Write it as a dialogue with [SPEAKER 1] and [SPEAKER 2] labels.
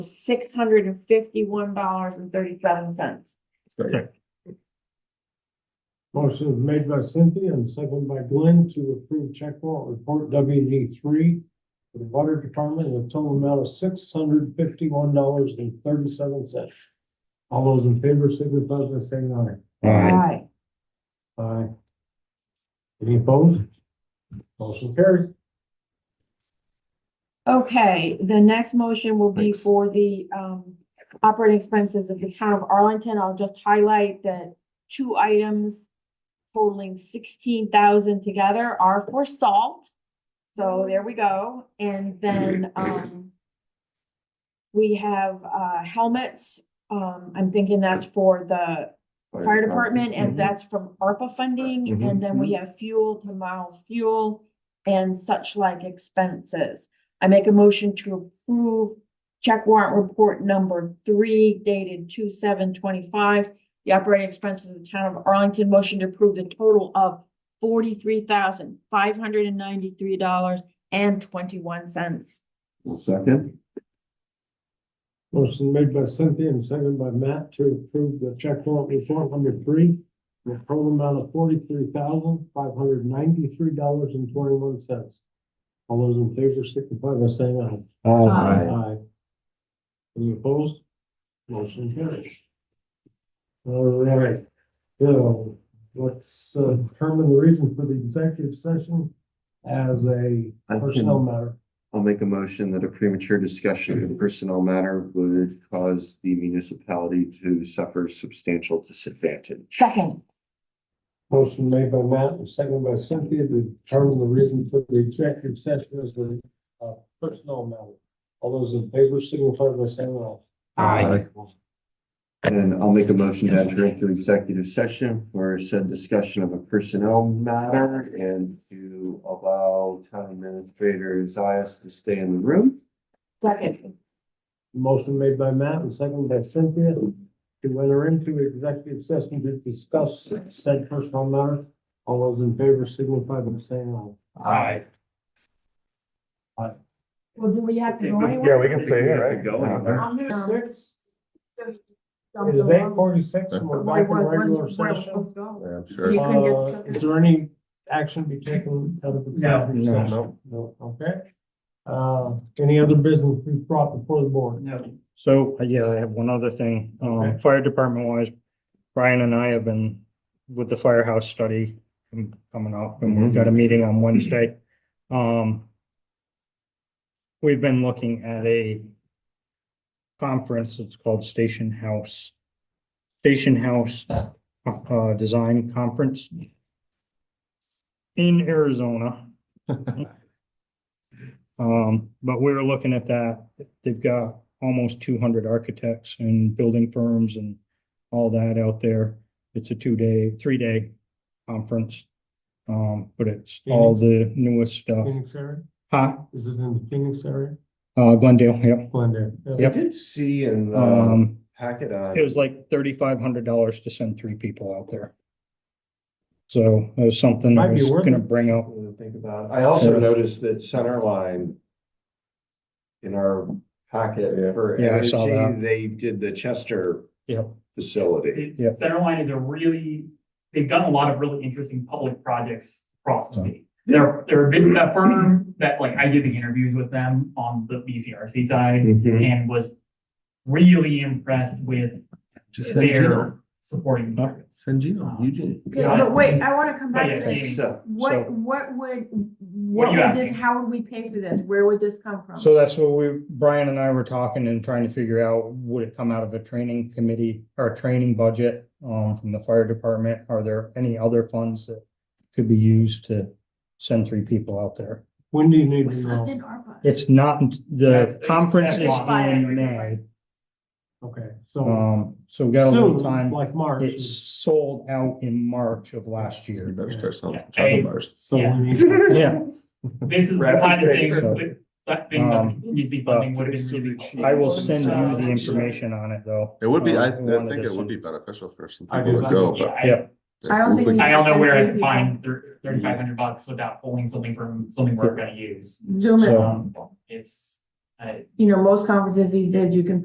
[SPEAKER 1] six hundred and fifty-one dollars and thirty-seven cents.
[SPEAKER 2] Second.
[SPEAKER 3] Motion is made by Cynthia and seconded by Glenn to approve check warrant report WD three for the water department in a total amount of six hundred fifty-one dollars and thirty-seven cents. All those in favor signify by saying
[SPEAKER 1] Aye.
[SPEAKER 3] aye. Aye. Any opposed? Motion carried.
[SPEAKER 1] Okay, the next motion will be for the um operating expenses of the town of Arlington. I'll just highlight that two items totaling sixteen thousand together are for salt. So there we go. And then um we have uh helmets. Um, I'm thinking that's for the fire department,
[SPEAKER 3] Mm-hmm.
[SPEAKER 1] and that's from ARPA funding, and then we have fuel to miles fuel and such like expenses. I make a motion to approve check warrant report number three dated two seven twenty-five. The operating expenses of the town of Arlington, motion to approve the total of forty-three thousand, five hundred and ninety-three dollars and twenty-one cents.
[SPEAKER 2] Well, second.
[SPEAKER 3] Motion made by Cynthia and seconded by Matt to approve the check warrant report number three in a total amount of forty-three thousand, five hundred ninety-three dollars and twenty-one cents. All those in favor signify by saying aye.
[SPEAKER 1] Aye.
[SPEAKER 3] Aye. Any opposed? Motion carries. All right, so let's uh, determine the reason for the executive session as a
[SPEAKER 4] I
[SPEAKER 3] personnel
[SPEAKER 4] can,
[SPEAKER 3] matter.
[SPEAKER 4] I'll make a motion that a premature discussion of a personnel matter would cause the municipality to suffer substantial disadvantage.
[SPEAKER 1] Second,
[SPEAKER 3] Motion made by Matt and seconded by Cynthia to determine the reason for the executive session as a uh, personnel matter. All those in favor signify by saying aye. Aye.
[SPEAKER 4] And I'll make a motion to enter into executive session for said discussion of a personnel matter and to allow town administrator Zias to stay in the room.
[SPEAKER 1] second,
[SPEAKER 3] Motion made by Matt and seconded by Cynthia to enter into executive session to discuss said personnel matter. All those in favor signify by saying
[SPEAKER 5] Uh,
[SPEAKER 3] aye.
[SPEAKER 1] well, do we have to go anywhere?
[SPEAKER 5] Yeah, we can stay here,
[SPEAKER 4] have to
[SPEAKER 5] right?
[SPEAKER 4] go anywhere.
[SPEAKER 1] I'm gonna-
[SPEAKER 3] Six,
[SPEAKER 1] Um,
[SPEAKER 3] it is eight forty-six and we're
[SPEAKER 1] Wait,
[SPEAKER 3] back in
[SPEAKER 1] what- what's-
[SPEAKER 3] regular
[SPEAKER 1] where we're
[SPEAKER 3] session.
[SPEAKER 1] supposed to go?
[SPEAKER 2] I'm
[SPEAKER 1] You
[SPEAKER 2] sure.
[SPEAKER 1] can get
[SPEAKER 3] Uh, is there any action to be taken out of executive
[SPEAKER 5] No.
[SPEAKER 3] session? No, okay. Uh, any other business to be brought before the board?
[SPEAKER 5] No.
[SPEAKER 6] So, uh, yeah, I have one other thing. Um,
[SPEAKER 3] Okay.
[SPEAKER 6] fire department wise, Brian and I have been with the firehouse study com- coming up and we've got a meeting on Wednesday. Um, we've been looking at a conference. It's called Station House. Station House, uh, Design Conference in Arizona. Um, but we're looking at that. They've got almost two hundred architects and building firms and all that out there. It's a two-day, three-day conference. Um, but it's all the newest stuff.
[SPEAKER 3] Phoenix area?
[SPEAKER 6] Huh?
[SPEAKER 3] Is it in the Phoenix area?
[SPEAKER 6] Uh, Glendale, yeah.
[SPEAKER 3] Glendale? yeah.
[SPEAKER 4] I
[SPEAKER 6] Yep.
[SPEAKER 4] did see in
[SPEAKER 3] Uh,
[SPEAKER 4] the
[SPEAKER 6] Um,
[SPEAKER 4] packet on.
[SPEAKER 6] it was like thirty-five hundred dollars to send three people out there. So it was something I
[SPEAKER 3] Might be
[SPEAKER 6] was
[SPEAKER 3] worth
[SPEAKER 6] gonna
[SPEAKER 3] it.
[SPEAKER 6] bring up.
[SPEAKER 4] something to think about. I also noticed that Centerline in our packet
[SPEAKER 2] Yeah.
[SPEAKER 4] for
[SPEAKER 6] Yeah, I saw
[SPEAKER 4] energy, they did the Chester
[SPEAKER 6] Yep.
[SPEAKER 4] facility.
[SPEAKER 6] Yeah.
[SPEAKER 5] Centerline is a really, they've done a lot of really interesting public projects across the state. They're, they're a big that firm that like I did the interviews with them on the BCRC side
[SPEAKER 6] Mm-hmm.
[SPEAKER 5] and was really impressed with
[SPEAKER 2] Just send Gino,
[SPEAKER 5] their supporting.
[SPEAKER 6] Huh?
[SPEAKER 5] materials.
[SPEAKER 2] send Gino, Eugene.
[SPEAKER 1] Okay, but wait, I wanna come back
[SPEAKER 5] Oh, Yeah,
[SPEAKER 1] to
[SPEAKER 5] yeah.
[SPEAKER 1] this.
[SPEAKER 4] So,
[SPEAKER 6] So-
[SPEAKER 1] What, what would, what
[SPEAKER 5] you
[SPEAKER 1] would this,
[SPEAKER 5] asking?
[SPEAKER 1] how would we pay for this? Where would this come from?
[SPEAKER 2] Um,
[SPEAKER 6] So that's what we, Brian and I were talking and trying to figure out, would it come out of a training committee or a training budget, um, from the fire department? Are there any other funds that could be used to send three people out there?
[SPEAKER 3] When do you need to
[SPEAKER 1] It's
[SPEAKER 3] know?
[SPEAKER 1] not in ARPA.
[SPEAKER 6] It's not,
[SPEAKER 5] That's-
[SPEAKER 6] the conference is
[SPEAKER 5] that's
[SPEAKER 6] in
[SPEAKER 5] fine.
[SPEAKER 6] May,
[SPEAKER 3] Okay, so
[SPEAKER 6] um, so we got a
[SPEAKER 3] soon,
[SPEAKER 6] little time.
[SPEAKER 3] like March,
[SPEAKER 6] It's sold out in March of last
[SPEAKER 2] You
[SPEAKER 6] year.
[SPEAKER 2] better start selling
[SPEAKER 5] Yeah.
[SPEAKER 2] chocolate bars.
[SPEAKER 3] so we
[SPEAKER 5] Yeah.
[SPEAKER 3] need,
[SPEAKER 6] Yeah,
[SPEAKER 5] This is the
[SPEAKER 4] Rapid
[SPEAKER 5] kind of thing
[SPEAKER 6] paper.
[SPEAKER 5] with that thing, that
[SPEAKER 6] Um,
[SPEAKER 5] contingency
[SPEAKER 6] but
[SPEAKER 5] funding would have been really. helpful.
[SPEAKER 6] I will send you the information on it though.
[SPEAKER 2] It would be, I, I
[SPEAKER 6] Um, we wanted
[SPEAKER 2] think
[SPEAKER 6] to
[SPEAKER 2] it would
[SPEAKER 6] send-
[SPEAKER 2] be beneficial for some
[SPEAKER 3] I
[SPEAKER 2] people
[SPEAKER 3] do.
[SPEAKER 2] to go,
[SPEAKER 5] Yeah,
[SPEAKER 2] but.
[SPEAKER 5] I-
[SPEAKER 6] Yeah.
[SPEAKER 1] I don't think
[SPEAKER 2] we-
[SPEAKER 5] I don't know where I can
[SPEAKER 1] Yeah.
[SPEAKER 5] find thirty-five hundred bucks without pulling something from something we're gonna use.
[SPEAKER 1] Zoom in.
[SPEAKER 6] So-
[SPEAKER 5] It's, I-
[SPEAKER 1] you know, most conferences these days, you can